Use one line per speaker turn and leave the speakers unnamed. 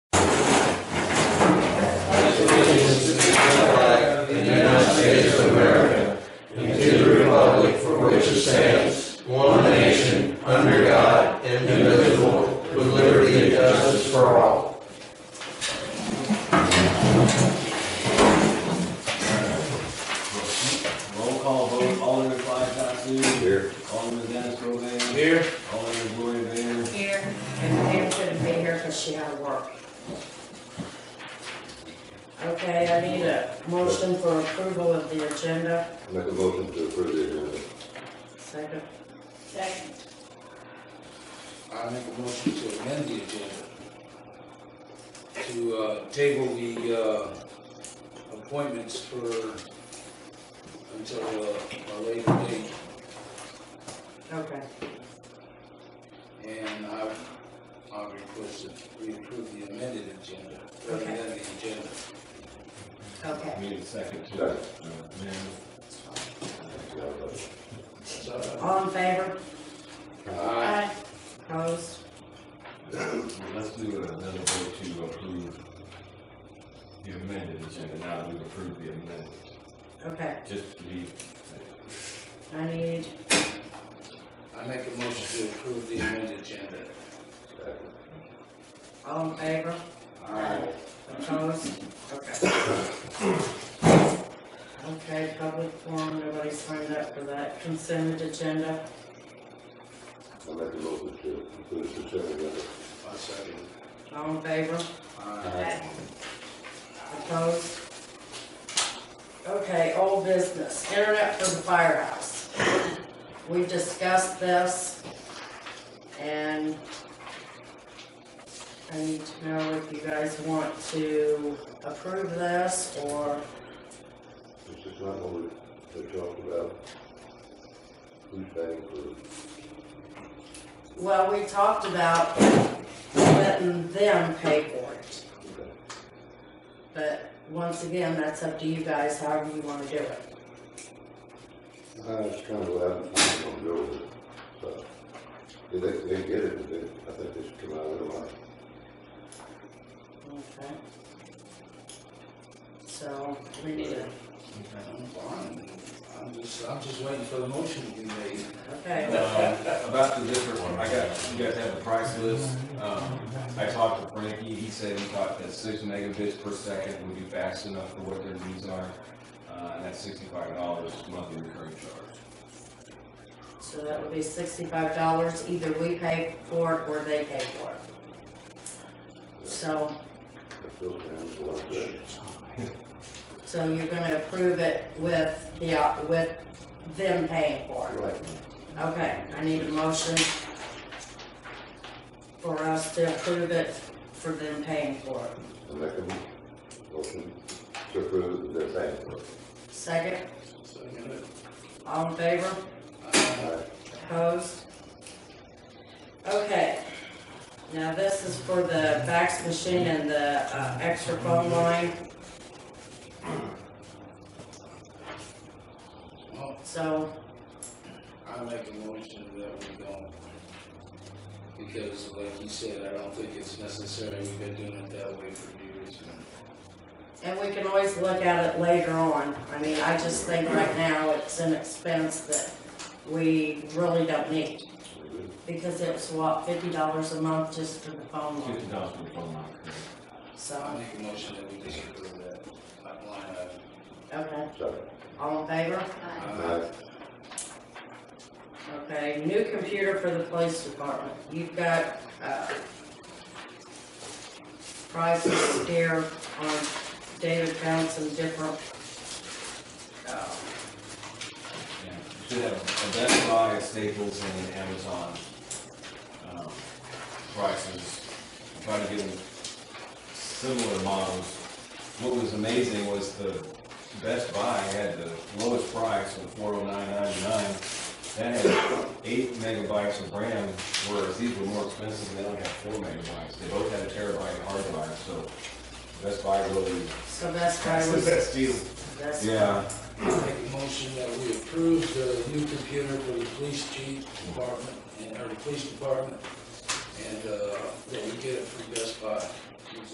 Roll call vote, Alderman Clyde Tatsu. Here. Alderman Dennis Roman. Here. Alderman Gloria Vayner.
Here, and Pam couldn't be here because she had work. Okay, I need a motion for approval of the agenda.
Make a motion to approve the agenda.
Second,
Second.
I make a motion to amend the agenda to uh, table the uh, appointments for, until uh, a later date.
okay,
And I, I request that we approve the amended agenda, rather than the agenda.
okay.
Need a second to. uh,
Second.
amend.
So,
All in favor,
I-
opposed?
Let's do another vote to approve the amended agenda, now that we've approved the amendment,
Okay,
just to be.
I need,
I make a motion to approve the amended agenda.
all in favor,
Aye.
opposed? Okay. Okay, public forum, nobody signed up for that consent agenda.
I make a motion to approve the consent agenda.
I second.
All in favor,
Aye.
Opposed? Okay, old business, internet for the firehouse. We discussed this, and I need to know if you guys want to approve this, or,
This is not what we- they talked about. Who's paying for
well, we talked about letting them pay for it,
it?
but once again, that's up to you guys, however you wanna do it.
Uh, it's kind of loud, it's not gonna go with it, so. They, they they get it, but they, I think they should come out of their money.
Okay. So, we need to,
I'm fine. I'm just, I'm just waiting for the motion to be made.
okay.
Um, About the different one, I got, you guys have the price list, um, I talked to Frankie, he said he thought that six megabits per second would be fast enough for what their needs are. Uh, and that's sixty-five dollars monthly recurring charge.
So that would be sixty-five dollars, either we pay for it or they pay for it. So,
I feel it's a lot of that.
so you're gonna approve it with the, op- with them paying for it?
Right.
Okay, I need a motion for us to approve it for them paying for it.
I make a motion to approve the paying for it.
Second,
Second it.
all in favor?
Aye.
Aye.
Opposed? Okay, now this is for the fax machine and the uh, extra phone line,
Well,
so
I make a motion that we don't, because like you said, I don't think it's necessary, we've been doing it that way for years.
And we can always look at it later on. I mean, I just think right now it's an expense that we really don't need because it's what, fifty dollars a month just for the phone line,
Fifty dollars for the phone line, correct?
I
so,
make a motion that we disapprove that line item.
okay.
Second.
All in favor?
Aye.
Okay, new computer for the police department. You've got, uh, prices here on, David found some different, uh,
Yeah, you should have a Best Buy, a Staples, and an Amazon, um, prices, try to get them similar models. What was amazing was the Best Buy had the lowest price of four oh nine ninety-nine. That had eight megabytes of RAM, whereas these were more expensive, and they only had four megabytes. They both had a terabyte hard drive, so Best Buy really,
so that's why
that's
I
the
was,
best deal.
that's.
Yeah,
I make a motion that we approve the new computer for the police chief department, and, or the police department, and, uh, that we get it from Best Buy.